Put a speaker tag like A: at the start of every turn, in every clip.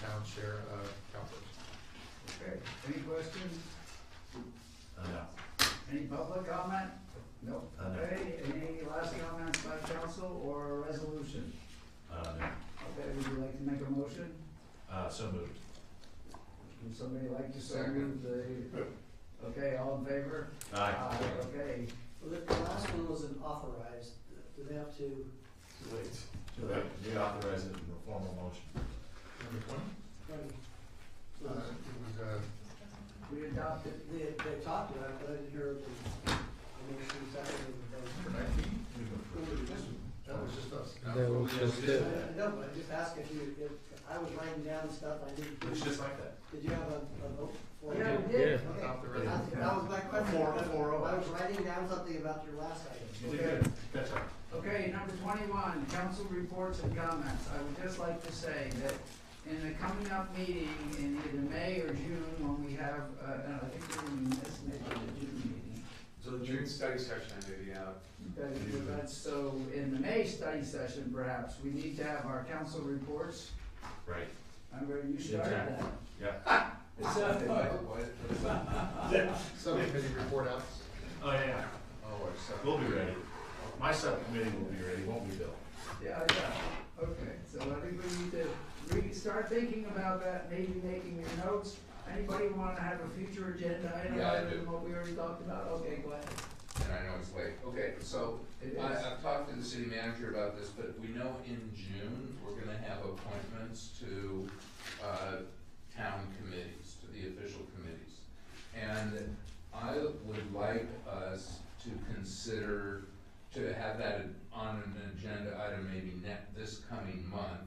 A: town share of CalPERS.
B: Okay, any questions?
C: No.
B: Any public comment? Nope.
C: Uh, no.
B: Okay, any last comments by council or resolution?
C: Uh, no.
B: Okay, would you like to make a motion?
C: Uh, so moved.
B: Would somebody like to second the, okay, all in favor?
C: Aye.
B: Okay.
D: Well, The the last one was an authorized, do they have to,
C: Wait. Reauthorize it in a formal motion.
A: Number twenty?
D: right,
A: Uh, it was, uh,
B: We adopted,
D: they, they talked about it, but I didn't hear the, the motion second
A: for
D: and
A: nineteen,
C: We've
E: Mm-hmm.
C: approved it.
A: that was just us.
F: That was just
D: the
F: it.
D: vote. I- I know, but I just asked if you, if, I was writing down stuff I didn't,
C: Looks
D: did
C: just like that.
D: you have a, a vote for it?
B: yeah, we did.
D: Okay.
A: Adopt the
D: That's-
A: resolution.
D: That was my question.
C: Four-
D: I-
C: four oh.
D: I was writing down something about your last item.
C: You did good. Catch up.
B: Okay, number twenty-one, council reports and comments. I would just like to say that in the coming up meeting in either May or June, when we have, uh, and I think we're in this, maybe the June meeting,
G: So the June study session, maybe, uh,
B: That- that's- so in the May study session perhaps, we need to have our council reports.
C: Right.
B: Remember, you started that.
C: Yeah.
A: Subcommittee report out.
C: Oh, yeah.
A: Oh, I said.
C: We'll be ready. My subcommittee will be ready, won't we, Bill?
B: Yeah, yeah, okay, so I think we need to re, start thinking about that, maybe making your notes. Anybody wanna have a future agenda item
G: Yeah, I
B: other
G: do.
B: than what we already talked about? Okay, go ahead.
G: and I know it's late. Okay, so
B: It
G: I,
B: is.
G: I've talked to the city manager about this, but we know in June, we're gonna have appointments to, uh, town committees, to the official committees. And I would like us to consider, to have that on an agenda item maybe ne- this coming month,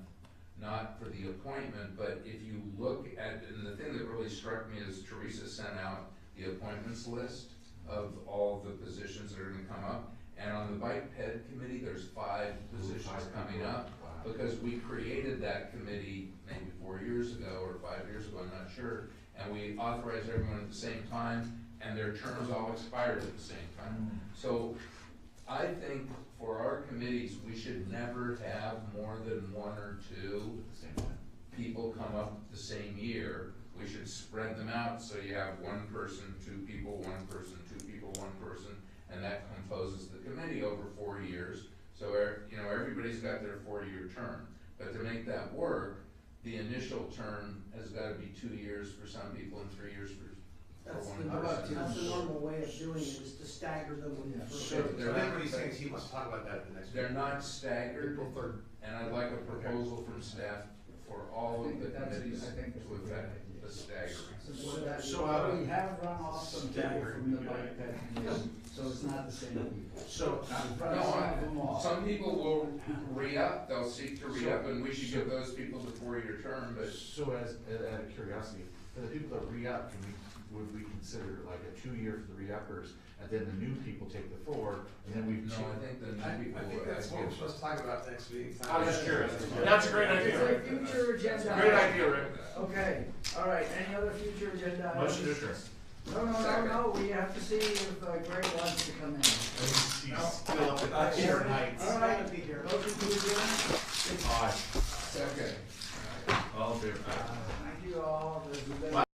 G: not for the appointment, but if you look at, and the thing that really struck me is Teresa sent out the appointments list of all the positions that are gonna come up. And on the bike ped committee, there's five positions coming up, because we created that committee maybe four years ago or five years ago, I'm not sure. And we authorized everyone at the same time, and their terms all expired at the same time. So I think for our committees, we should never have more than one or two people come up the same year. We should spread them out, so you have one person, two people, one person, two people, one person, and that composes the committee over four years. So, er- you know, everybody's got their four-year term, but to make that work, the initial term has gotta be two years for some people and three years for,
D: That's
G: one
D: the,
C: oh.
G: person.
D: that's the normal way of doing it, is to stagger them when you
B: Yeah.
D: first.
G: so they're
E: I think what he's saying
G: not,
E: is he wants to talk about that at the next
G: they're
E: meeting.
G: not staggered.
A: April third.
G: And I'd like a proposal from staff for all of the
B: I think that's-
G: committees
B: I think that's
G: to
B: a good
G: affect
B: idea.
G: the staggering.
B: So that,
C: So I would-
B: we have run off some people
C: Staggered,
B: from the
C: yeah.
B: bike ped committee, so it's not the same people.
C: So,
B: Probably
G: No,
B: some
G: I-
B: of them off.
G: Some people will re-up, they'll seek to re-up, and we should give those people the four-year term, but
C: so as, out of curiosity, for the people that re-up, can we, would we consider like a two-year for the re-uppers, and then the new people take the four, and then we've.
G: no, I think the
E: I,
G: new people.
E: I think that's what we're supposed to talk about next week. It's not-
C: I was just curious.
E: That's-
C: That's a great
B: It's
C: idea.
B: a future agenda.
C: Great idea, Rick.
B: Okay, all right, any other future agenda items?
C: Motion to adjourn.
B: No, no, no,
G: Second.
B: no, we have to see if uh, Greg wants to come in.
C: He's still up at
E: Sure.
C: Heights.
B: All right, motion to adjourn?
C: Aye.